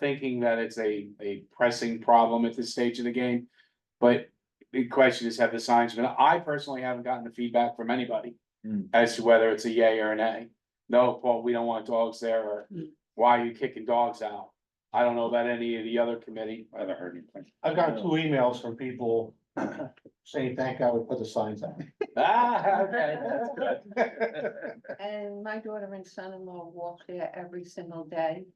thinking that it's a, a pressing problem at this stage of the game. But the question is, have the signs been, I personally haven't gotten the feedback from anybody Hmm. as to whether it's a yay or an nay. No, Paul, we don't want dogs there, or why are you kicking dogs out? I don't know about any of the other committee. I haven't heard anything. I've got two emails from people saying, thank God we put the signs up. Ah, okay, that's good. And my daughter and son-in-law walk there every single day.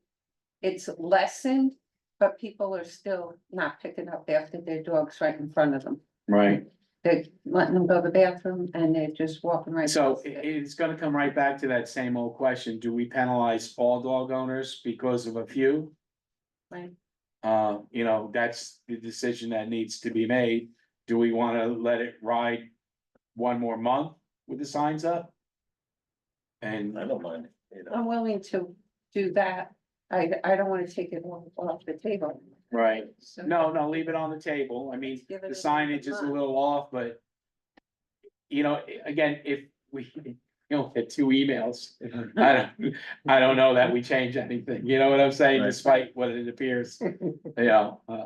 It's lessened, but people are still not picking up after their dogs right in front of them. Right. They're letting them go to the bathroom and they're just walking right. So past i- it. it's gonna come right back to that same old question, do we penalize all dog owners because of a few? Right. Uh, you know, that's the decision that needs to be made, do we wanna let it ride one more month with the signs up? And, I don't mind, you know. I'm willing to do that. I, I don't want to take it off, off the table. right, So- no, no, leave it on the table, I mean, Give the it a signage is a month. little off, but. You know, i- again, if we, you know, had two emails. I don't, I don't know that we change anything, you know what I'm saying, Right. despite what it appears, you know, uh.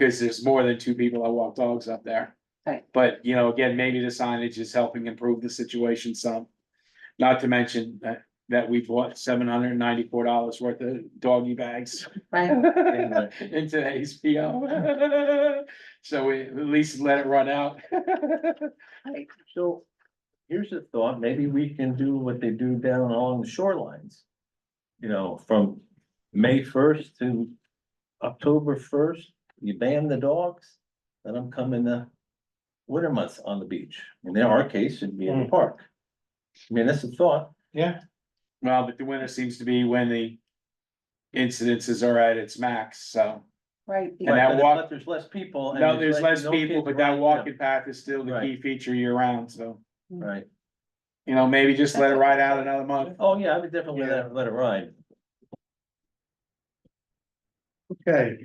Cause there's more than two people that walk dogs up there. Right. But, you know, again, maybe the signage is helping improve the situation some. Not to mention that, that we've bought seven hundred and ninety-four dollars worth of doggy bags Right, uh, in today's PO. So we at least let it run out. So here's a thought, maybe we can do what they do down along the shorelines. You know, from May first to October first, you ban the dogs, let them come in the winter months on the beach. And in our case, it'd be in Hmm. the park. I mean, that's a thought. Well, but the winter seems to be when the incidences are at its max, so. right. And that But if walk- not, There's less people. and No, there's less no people, kids but that running, walking path is still the key Right. feature year round, so, Right. you know, maybe just let it ride out another month. Oh, yeah, I would definitely let it- let it ride. Okay.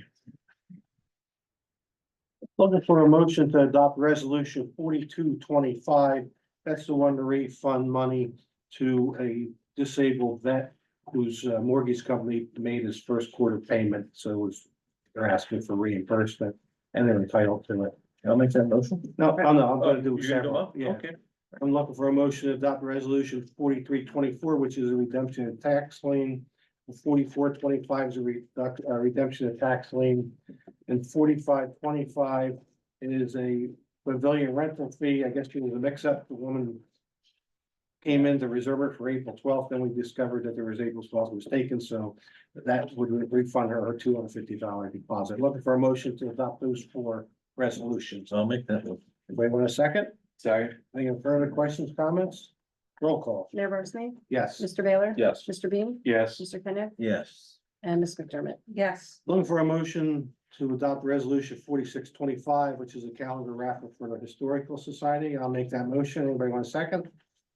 Looking for a motion to adopt resolution forty-two twenty-five. That's the one to refund money to a disabled vet whose uh, mortgage company made his first quarter payment, so it's, they're asking for reimbursement and they're entitled to it. I'll make that motion. No, no, no, I'm Oh, gonna you're do gonna go several, up? yeah. Okay. I'm looking for a motion to adopt resolution forty-three twenty-four, which is a redemption of tax lien. Forty-four twenty-five is a reduct, uh, redemption of tax lien. And forty-five twenty-five is a pavilion rental fee. I guess it was a mix-up. The woman came in to reserve it for April twelfth, then we discovered that there was April twelfth was taken, so that would refund her her two hundred fifty dollar deposit. Looking for a motion to adopt those four resolutions. So I'll make that motion. Anybody want a second? Sorry. Any further questions, comments? Roll call, Mayor Barsney? yes. Mr. Baylor? Yes. Mr. Beam? Yes, Mr. Kenneth? Yes. And Ms. McDermott? Yes, Looking for a motion to adopt resolution forty-six twenty-five, which is a calendar raffle for the Historical Society. I'll make that motion. Anybody want a second?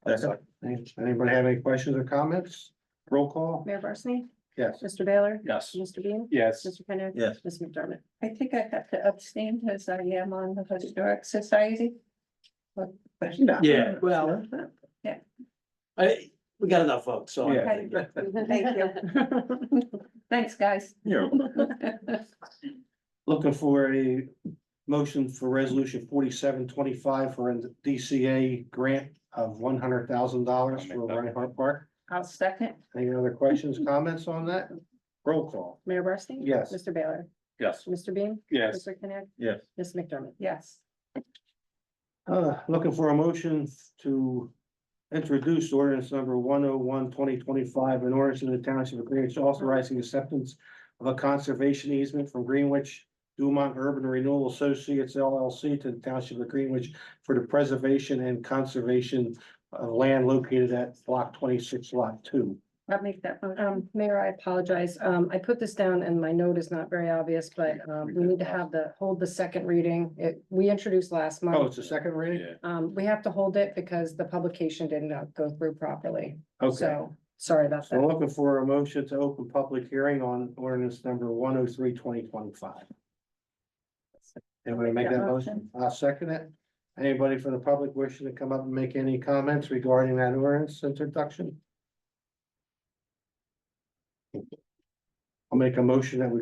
Second. Any- Anybody have any questions or comments? Roll call, Mayor Barsney? yes. Mr. Baylor? Yes. Mr. Beam? yes, Mr. Kenneth? Yes. Ms. McDermott? I think I have to abstain because I am on the historic society. But, but Yeah, well, Yeah. I, we got enough votes, so. I Yeah. think- Thank you. Thanks, guys. You're Looking for a motion for resolution forty-seven twenty-five for a DCA grant of one hundred thousand dollars for Reinhardt Park. I'll second. Any other questions, comments on that? Roll call, Mayor Barsney? Yes. Mr. Baylor? Yes. Mr. Beam? yes. Mr. Kenneth? Yes. Ms. McDermott? Yes, Uh, looking for a motion to introduce ordinance number one oh one twenty twenty-five, an ordinance in the township of Greenwich authorizing acceptance of a conservation easement from Greenwich Dumont Urban Renewal Associates LLC to the township of Greenwich for the preservation and conservation of land located at block twenty-six lot two. I'll make that motion. Um, Mayor, I apologize. Um, I put this down and my note is not very obvious, but, um, we need to have the, hold the second reading. It, we introduced last Oh, month. it's a second reading? Um, we have to hold it because the publication did not go through properly. Okay, So, sorry about so that. looking for a motion to open public hearing on ordinance number one oh three twenty twenty-five. Anybody make that motion? I'll second it. Anybody from the public wishing to come up and make any comments regarding that ordinance introduction? I'll make a motion that we